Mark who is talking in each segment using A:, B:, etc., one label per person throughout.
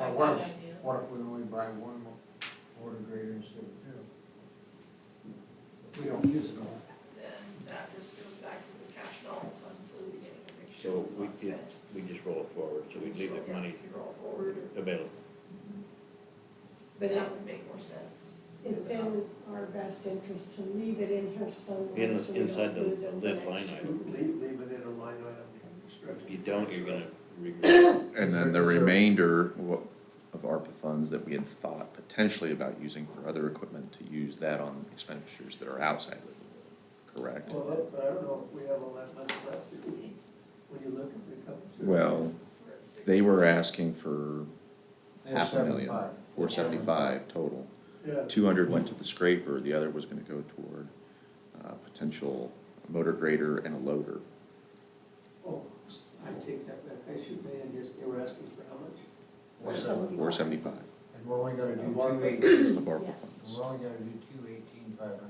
A: Uh,
B: What,
A: bad idea.
B: what if we only buy one more water grader instead of two? If we don't use it all.
A: Then that just goes back to the cash balance until we get a picture.
C: So we, yeah, we just roll it forward, so we leave the money
A: Roll forward,
C: available.
A: but that would make more sense.
D: It's in our best interest to leave it in here somewhere
C: In,
D: so we don't
C: inside the
D: lose it for
C: lid
D: next
C: line
D: year.
C: item,
B: Leave, leave it in a line item.
C: if you don't, you're gonna regret.
E: And then the remainder wa- of ARPA funds that we had thought potentially about using for other equipment to use that on expenditures that are outside of the, correct?
F: Well, that- but I don't know if we have all that much left, do we? when you look if it comes to.
E: Well,
A: We're at six-
E: they were asking for half a million,
B: Seventy-five.
E: four seventy-five total.
F: Yeah,
E: Two hundred went to the scraper, the other was gonna go toward, uh, potential motor grader and a loader.
F: oh, I take that back, I should have been, just, they were asking for how much?
B: Four
D: Or
B: seven-
D: somebody-
E: Four seventy-five
B: And we're only gonna do
F: Of our
B: two
F: rate.
B: eighteen,
E: of ARPA
D: Yes.
E: funds.
B: we're only gonna do two eighteen five hundred.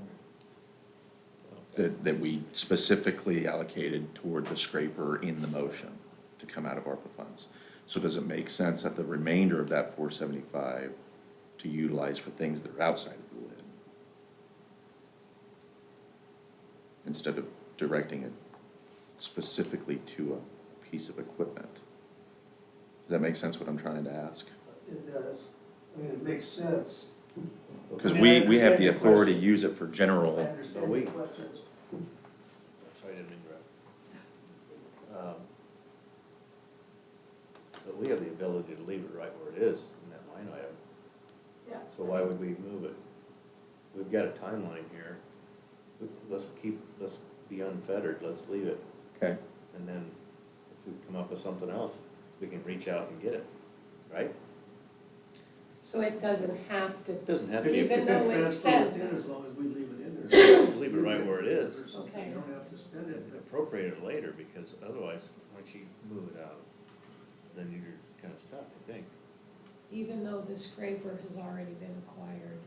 E: that, that we specifically allocated toward the scraper in the motion to come out of ARPA funds. So does it make sense that the remainder of that four seventy-five to utilize for things that are outside of the lid? Instead of directing it specifically to a piece of equipment? Does that make sense what I'm trying to ask?
F: It does, I mean, it makes sense.
E: Cause
F: I mean, I
E: we, we have
F: understand
E: the
F: your
E: authority to
F: question.
E: use it for
F: I
E: general.
C: But
F: understand
C: we-
F: your questions.
C: Sorry, I didn't mean to interrupt. Um, But we have the ability to leave it right where it is in that line item,
D: Yeah.
C: so why would we move it? We've got a timeline here, Let- let's keep, let's be unfettered, let's leave it,
E: Okay.
C: and then if we come up with something else, we can reach out and get it, right?
D: So it doesn't have to,
C: It doesn't have to be,
D: Even though it
F: That's what
D: says
F: in,
D: that.
F: As long as we leave it in there.
C: leave it right where it is,
F: Or something,
D: Okay.
F: You don't have to spend it, but
C: appropriate it later, because otherwise, once you move it out, then you're kinda stuck, I think.
D: even though the scraper has already been acquired.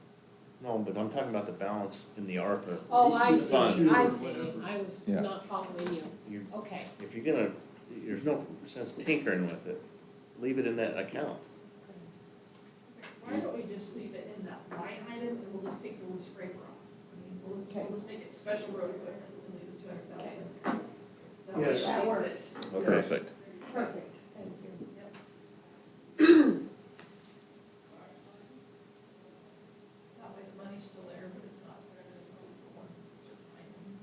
C: No, but I'm talking about the balance in the ARPA.
D: Oh, I see,
C: Fund.
D: I see, I was
E: Yeah.
D: not following you,
C: You-
D: okay.
C: If you're gonna, there's no sense tinkering with it, leave it in that account.
A: Why don't we just leave it in that line item and we'll just take the little scraper off? I mean, we'll just, we'll
D: Okay.
A: just make it special road equipment and leave the two hundred thousand in there. That way
F: Yes.
A: it
D: That
A: works.
E: Perfect.
D: Perfect, thank you.
A: That way the money's still there, but it's not, there's for one certain item.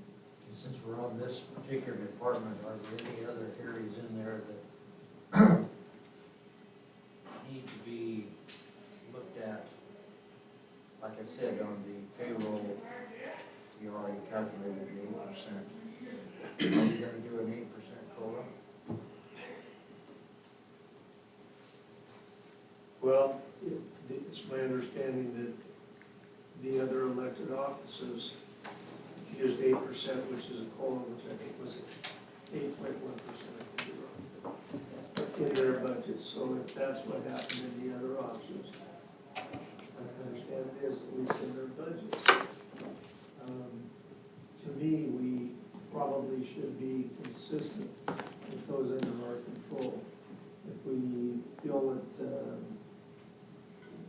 B: And since we're on this particular department, are there any other areas in there that need to be looked at? Like I said, on the payroll, you already calculated the eight percent. Are you gonna do an eight percent COLA?
F: Well, it- it's my understanding that the other elected offices used eight percent, which is a COLA, which I think was eight point one percent, I could be wrong, in their budget, so if that's what happened in the other offices, I understand it is, at least in their budgets. Um, To me, we probably should be consistent with those under our control. If we feel that, um,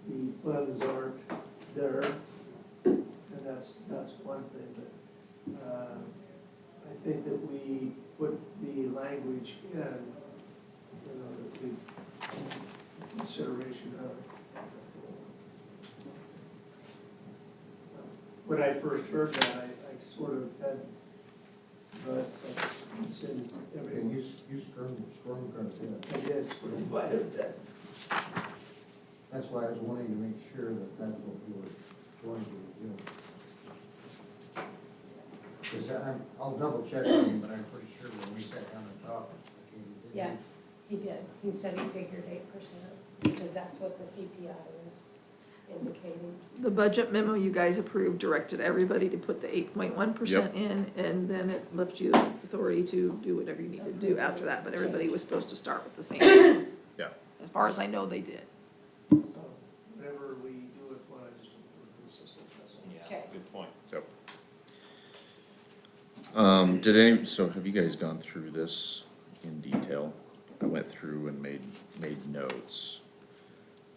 F: the funds aren't there, and that's, that's one thing, but, uh, I think that we put the language in, you know, that we, consideration of. When I first heard that, I, I sort of had, but that's, since
B: And
F: everyone,
B: you, you scrum, scrum guns, yeah.
F: I guess, sort of, what if that,
B: That's why I was wanting to make sure that that's what we were going to be doing. Because I'm, I'll double check on you, but I'm pretty sure when we sat down and talked, okay, you did.
D: Yes, he did, he said he figured eight percent, because that's what the CPI was indicating.
G: The budget memo you guys approved directed everybody to put the eight point one percent in, and then it left you authority to do whatever you needed to do after that, but everybody was supposed to start with the same.
E: Yeah.
G: As far as I know, they did.
F: so, whatever we do with one, I just, we're consistent, that's all.
D: Okay.
C: Good point.
E: Um, did any, so have you guys gone through this in detail? I went through and made, made notes.